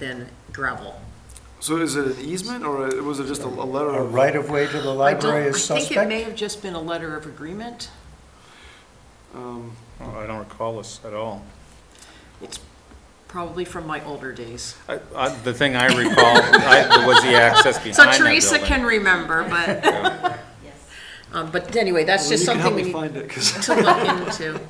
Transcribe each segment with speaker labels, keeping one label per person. Speaker 1: than gravel.
Speaker 2: So is it an easement or was it just a a letter
Speaker 3: A
Speaker 2: of?
Speaker 3: right-of-way to the
Speaker 1: I don't-
Speaker 3: library is
Speaker 1: I think it may
Speaker 3: suspect?
Speaker 1: have just been a letter of agreement.
Speaker 2: um,
Speaker 4: Oh, I don't recall this at all.
Speaker 1: It's probably from my older days.
Speaker 4: I- I- The thing I recall I- was the access behind
Speaker 1: So
Speaker 4: that
Speaker 1: Teresa
Speaker 4: building.
Speaker 1: can remember, but, um, but anyway, that's
Speaker 2: well,
Speaker 1: just something we
Speaker 2: You
Speaker 1: need
Speaker 2: can help me find it, 'cause-
Speaker 1: to look into.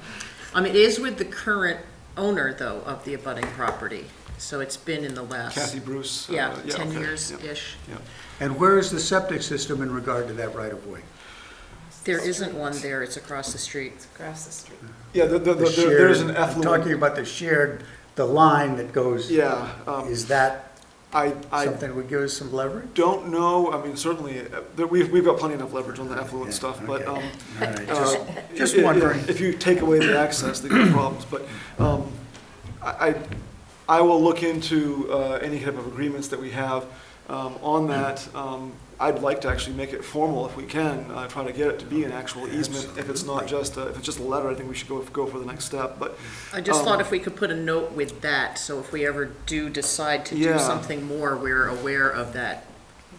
Speaker 1: Um, it is with the current owner, though, of the abutting property, so it's been in the last.
Speaker 2: Kathy Bruce. uh,
Speaker 1: Yeah, ten
Speaker 2: okay, yeah,
Speaker 1: years-ish.
Speaker 2: yeah.
Speaker 3: And where is the septic system in regard to that right-of-way?
Speaker 1: There isn't one there, it's across the street.
Speaker 5: Across the street.
Speaker 2: Yeah, the- the-
Speaker 3: The
Speaker 2: the- there- there's an
Speaker 3: shared- I'm
Speaker 2: effluent.
Speaker 3: Talking about the shared, the line that goes,
Speaker 2: Yeah, um,
Speaker 3: is that
Speaker 2: I, I
Speaker 3: something that would give us some leverage?
Speaker 2: don't know, I mean, certainly, uh, there- we've, we've got plenty enough leverage on the effluent
Speaker 3: Yeah,
Speaker 2: stuff, but,
Speaker 3: okay.
Speaker 2: um,
Speaker 3: All right,
Speaker 2: uh,
Speaker 3: just- just
Speaker 2: i- i-
Speaker 3: wondering.
Speaker 2: If you take away the access, there could be problems, but, um, I, I- I will look into, uh, any type of agreements that we have, um, on that. Um, I'd like to actually make it formal if we can, uh, try to get it to be an actual easement. If it's not just, a- if it's just a letter, I think we should go, go for the next step, but,
Speaker 1: I just thought
Speaker 2: Um,
Speaker 1: if we could put a note with that, so if we ever do decide to do
Speaker 2: Yeah.
Speaker 1: something more, we're aware of that.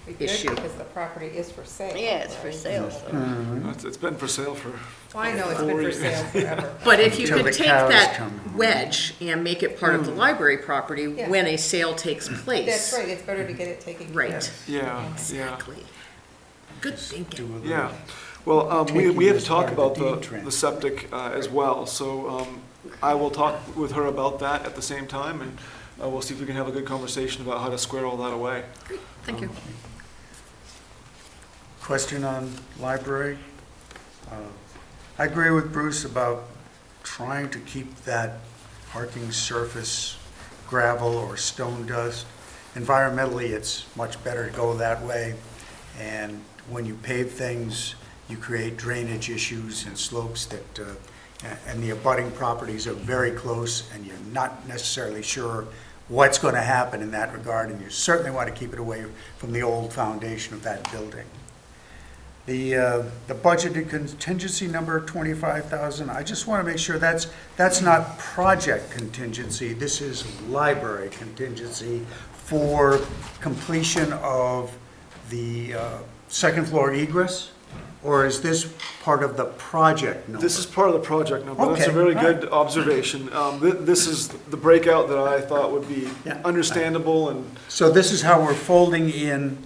Speaker 5: It'd be good
Speaker 1: Issue.
Speaker 5: Because the property is for sale.
Speaker 6: Yeah, it's for sale, so.
Speaker 2: it's- it's been for sale for
Speaker 5: Well, I know it's been for sale forever.
Speaker 1: But if you
Speaker 3: Until
Speaker 1: could
Speaker 3: the
Speaker 1: take
Speaker 3: cows
Speaker 1: that
Speaker 3: come home.
Speaker 1: wedge and make it part of the library property
Speaker 5: Yeah.
Speaker 1: when a sale takes
Speaker 3: Mm.
Speaker 1: place.
Speaker 5: That's right, it's better to get it taken care
Speaker 1: Right,
Speaker 5: of.
Speaker 2: Yeah, yeah,
Speaker 1: exactly. Good thinking.
Speaker 2: yeah. Well, um, we, we
Speaker 3: Taking
Speaker 2: have
Speaker 3: this
Speaker 2: to talk
Speaker 3: part of the
Speaker 2: about
Speaker 3: deed
Speaker 2: the, the
Speaker 3: transfer.
Speaker 2: septic, uh, as well, so, um, I will talk with her about that at the same time, and, uh, we'll see if we can have a good conversation about how to square all that away.
Speaker 1: Thank you.
Speaker 3: Question on library. Uh, I agree with Bruce about trying to keep that parking surface gravel or stone dust. Environmentally, it's much better to go that way. And when you pave things, you create drainage issues and slopes that, uh, a- and the abutting properties are very close, and you're not necessarily sure what's going to happen in that regard, and you certainly want to keep it away from the old foundation of that building. The, uh, the budgeted contingency number, 25,000, I just want to make sure that's, that's not project contingency, this is library contingency for completion of the uh, second floor egress? Or is this part of the project number?
Speaker 2: This is part of the project number, that's a
Speaker 3: Okay,
Speaker 2: very
Speaker 3: all right.
Speaker 2: good observation. Um, thi- this is the breakout that I thought would be
Speaker 3: Yeah.
Speaker 2: understandable and,
Speaker 3: So this is how we're folding in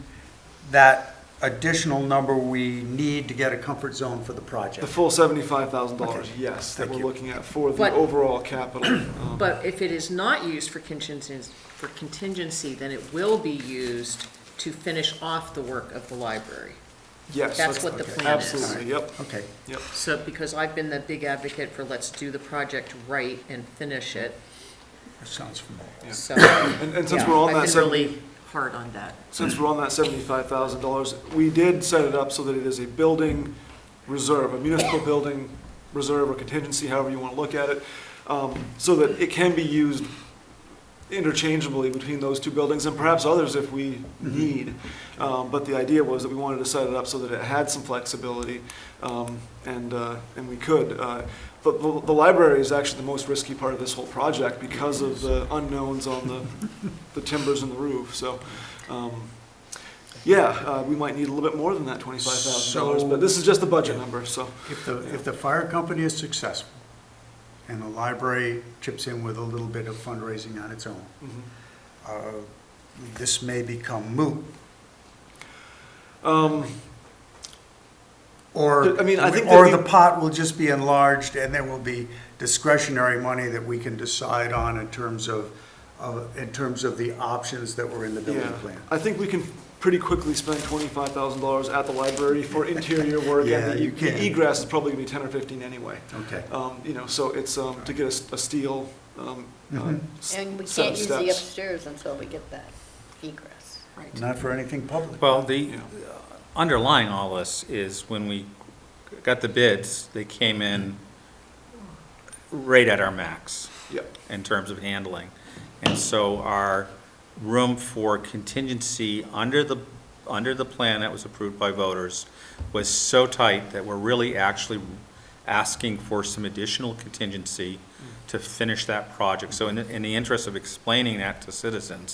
Speaker 3: that additional number we need to get a comfort zone for the
Speaker 2: The
Speaker 3: project.
Speaker 2: full seventy-five thousand dollars,
Speaker 3: Okay.
Speaker 2: yes, that
Speaker 3: Thank
Speaker 2: we're
Speaker 3: you.
Speaker 2: looking at for the
Speaker 1: But-
Speaker 2: overall capital. um,
Speaker 1: But if it is not used for contingencies, for contingency, then it will be used to finish off the work of the library.
Speaker 2: Yes.
Speaker 1: that's what the plan is.
Speaker 2: Absolutely, yep,
Speaker 3: Okay,
Speaker 2: yep.
Speaker 1: So, because I've been the big advocate for let's do the project right and finish it,
Speaker 3: that sounds familiar.
Speaker 1: so.
Speaker 2: And, and since
Speaker 1: yeah,
Speaker 2: we're on that
Speaker 1: I've been
Speaker 2: seventy.
Speaker 1: really hard on that.
Speaker 2: since we're on that seventy-five thousand dollars, we did set it up so that it is a building reserve, a municipal building reserve or contingency, however you want to look at it, um, so that it can be used interchangeably between those two buildings and perhaps others if we need. Um, but the idea was that we wanted to set it up so that it had some flexibility, um, and, uh, and we could. Uh, but the, the library is actually the most risky part of this whole project because of the unknowns on the, the timbers and the roof, so, um, yeah, uh, we might need a little bit more than that twenty-five thousand dollars,
Speaker 3: So-
Speaker 2: but this is just the budget number, so.
Speaker 3: If the, if the fire company is successful and the library chips in with a little bit of fundraising on its own,
Speaker 2: mhm.
Speaker 3: uh, this may become moot,
Speaker 2: Um,
Speaker 3: or,
Speaker 2: I mean, I think that
Speaker 3: or
Speaker 2: we-
Speaker 3: the pot will just be enlarged and there will be discretionary money that we can decide on in terms of, of, in terms of the options that were in the building
Speaker 2: yeah,
Speaker 3: plan.
Speaker 2: I think we can pretty quickly spend twenty-five thousand dollars at the library for interior work,
Speaker 3: Yeah,
Speaker 2: and the
Speaker 3: you
Speaker 2: e-
Speaker 3: can.
Speaker 2: the egress is probably gonna be ten or fifteen anyway.
Speaker 3: Okay.
Speaker 2: Um, you know, so it's, um, to get a s- a, steel, um, uh,
Speaker 3: Mhm.
Speaker 2: s-
Speaker 6: And we
Speaker 2: set
Speaker 6: can't
Speaker 2: of
Speaker 6: use the
Speaker 2: steps.
Speaker 6: upstairs until we get that egress.
Speaker 3: Not for anything public.
Speaker 4: Well, the, uh,
Speaker 2: Yeah.
Speaker 4: underlying all this is when we got the bids, they came in right at our max
Speaker 2: Yeah,
Speaker 4: in terms of handling. And so our room for contingency under the, under the plan that was approved by voters was so tight that we're really actually asking for some additional contingency to finish that project. So in, the- in the interest of explaining that to citizens,